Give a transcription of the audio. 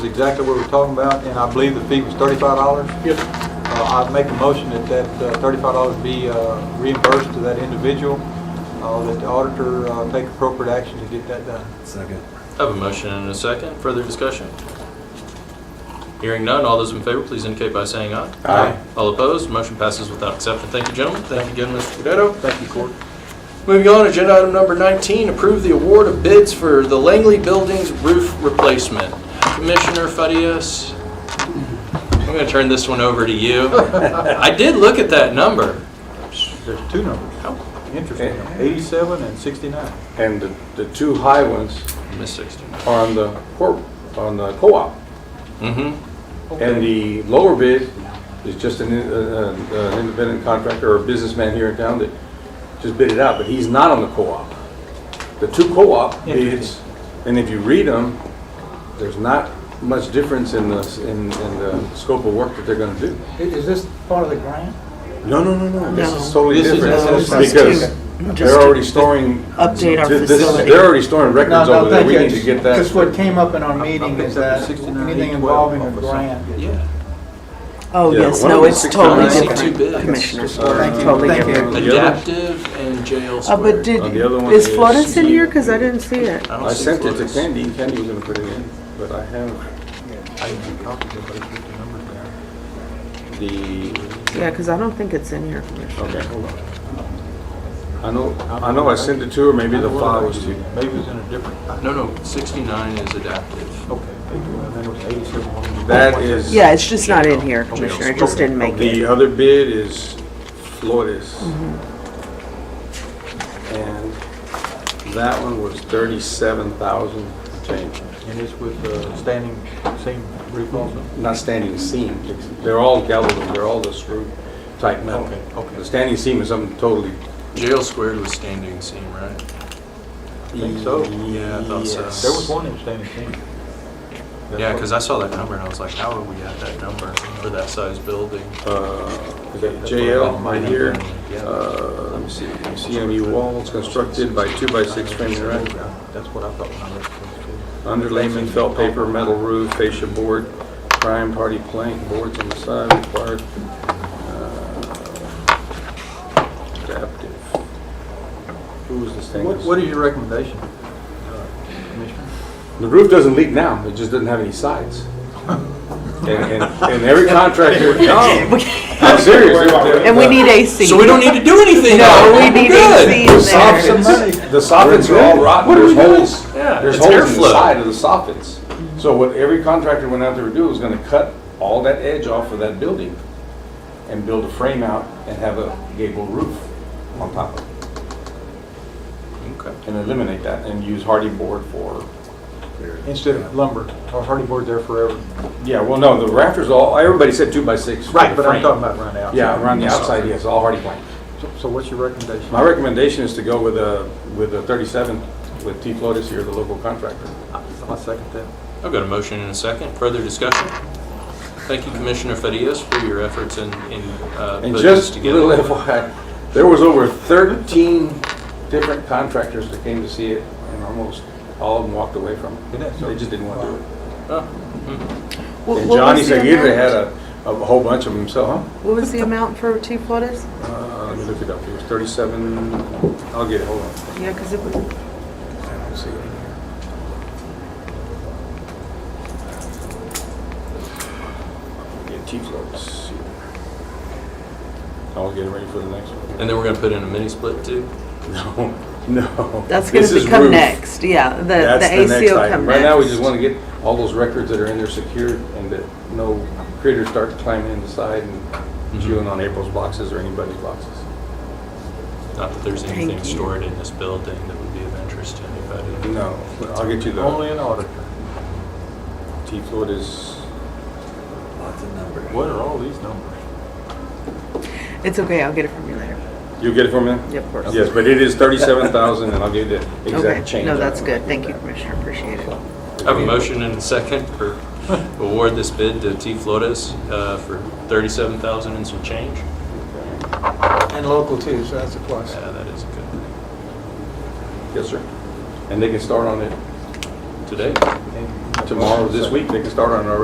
is exactly what we're talking about, and I believe the fee was thirty-five dollars. Yes, Uh, I'd make a motion that that uh, thirty-five dollars be uh, reimbursed to that individual, uh, that the auditor uh, take appropriate action to get that done. Second. I have a motion and a second. Further discussion? Hearing none, all those in favor, please indicate by saying aye. Aye. All opposed, motion passes without exception. Thank you, gentlemen. Thank you again, Mr. Gudido. Thank you, Court. Moving on, agenda item number 19, approve the award of bids for the Langley Building's roof replacement. Commissioner Fadius, I'm going to turn this one over to you. I did look at that number. There's two numbers, Oh, Eh, interesting, eighty-seven and sixty-nine. and the, the two high ones Miss 60. are on the corp, on the co-op. Mm-hmm. And the lower bid is just an, in- uh, uh, an independent contractor or a businessman here in town that just bid it out, but he's not on the co-op. The two co-op bids, Interesting. and if you read them, there's not much difference in the, s- in, in the scope of work that they're gonna do. is this part of the grant? No, no, no, no, this is No. totally This is- different. this is- Because just they're to- already storing. update our this- this- facility. They're already storing No, records no, over there, thank we you. need to get that. Because what came up in our meeting picked is up the that 69, anything 812 involving a or grant. Yeah. Oh, Yeah, yes, one no, of it's the six totally times. Too big. different, Commissioner. Thank you. Totally Thank you. different. The other- Adaptive and jail Uh, but squared. did, On the other one is is- Florence in here? Because I didn't see it. don't I see sent it to Florida's. Candy, and Candy was gonna put it in, but I have the, Yeah, because I don't think it's in here, Commissioner. okay, hold on. I know, I know I sent it to her, maybe the file was to, Maybe it was in a different, No, no, 69 is adaptive. okay, and then it was eighty-seven. that is. Yeah, it's just not in here, Commissioner. It just didn't make The it. other bid is Flores. And that one was thirty-seven thousand change, And it's with uh, standing seam roof also. not standing seam, they're all galvanized, they're all the screw type metal. Okay, okay. The standing seam is something totally Jail squared was standing seam, right? Think so? Yeah, I thought so. Yes. There was one in standing seam. Yeah, because I saw that number and I was like, how are we at that number for that size building? Uh, is that JL right here. Uh, let me see, CMU walls constructed by two by six frame interact, That's what I thought when I looked underlayment, felt paper, metal roof, fascia board, prime party plank, boards on the side required. uh, Adaptive. Who was the at it. What- stainless? What is your recommendation, uh, Commissioner? The roof doesn't leak now, it just doesn't have any sides. And, and, and every contractor, no, I'm serious. And we need AC. So we don't need to do anything. No, we We're need good. AC The in there. soffits, the soffits are all rotten, What are there's we doing? holes, Yeah, there's it's holes in the airflow. side of the soffits. So what every contractor went out there to do was gonna cut all that edge off of that building and build a frame out and have a gable roof on top of it Okay. and eliminate that and use hardy board for, Instead of lumber or hardy board there forever. yeah, well, no, the rafters all, everybody said two by six. for the But I'm frame. talking about right now. Yeah, around the outside, yes, all hardy plank. So- So what's your recommendation? My recommendation is to go with a, with a thirty-seven with T. Flotis here, the local contractor. I second that. I've got a motion and a second. Further discussion? Thank you, Commissioner Fadias, for your efforts in, in uh, putting And this just a little together. FYI, there was over 13 different contractors that came to see it, and almost all of them walked away from it. Isn't that so? They just didn't want to do it. Oh, What- And what Johnny was the said he either amount? had a, a whole bunch of them, so, huh? What was the amount for T. Flores? Uh, Let me look it up, it was 37, I'll get it, hold on. Yeah, because it was, Let's see. Get T-floats. I'll get it ready for the next one. And then we're going to put in a mini split too? No, no. that's going This to is become roof. next, yeah. The, That's the next AC will item. come Right next. now, we just want to get all those records that are in there secured and that no critters start climbing in the side and chewing on April's boxes or anybody's boxes. Not that there's Thank anything you. stored in this building that would be of interest to anybody. No, I'll get you Only the, an auditor. T Floyd is, Lots of numbers. What are all these numbers? It's okay, I'll get it from you later. you'll get it for me? Yeah, of course. Yes, but it is thirty-seven thousand and I'll give you the exact Okay, change. no, that's good. Thank you, Commissioner, appreciate it. I have a motion and a second for award this bid to T. Flores uh, for 37000 and some change. And local too, so that's a plus. Yeah, Uh, that is a good thing. Yes, sir. And they can start on it Today? And tomorrow, this week, they can start on it already.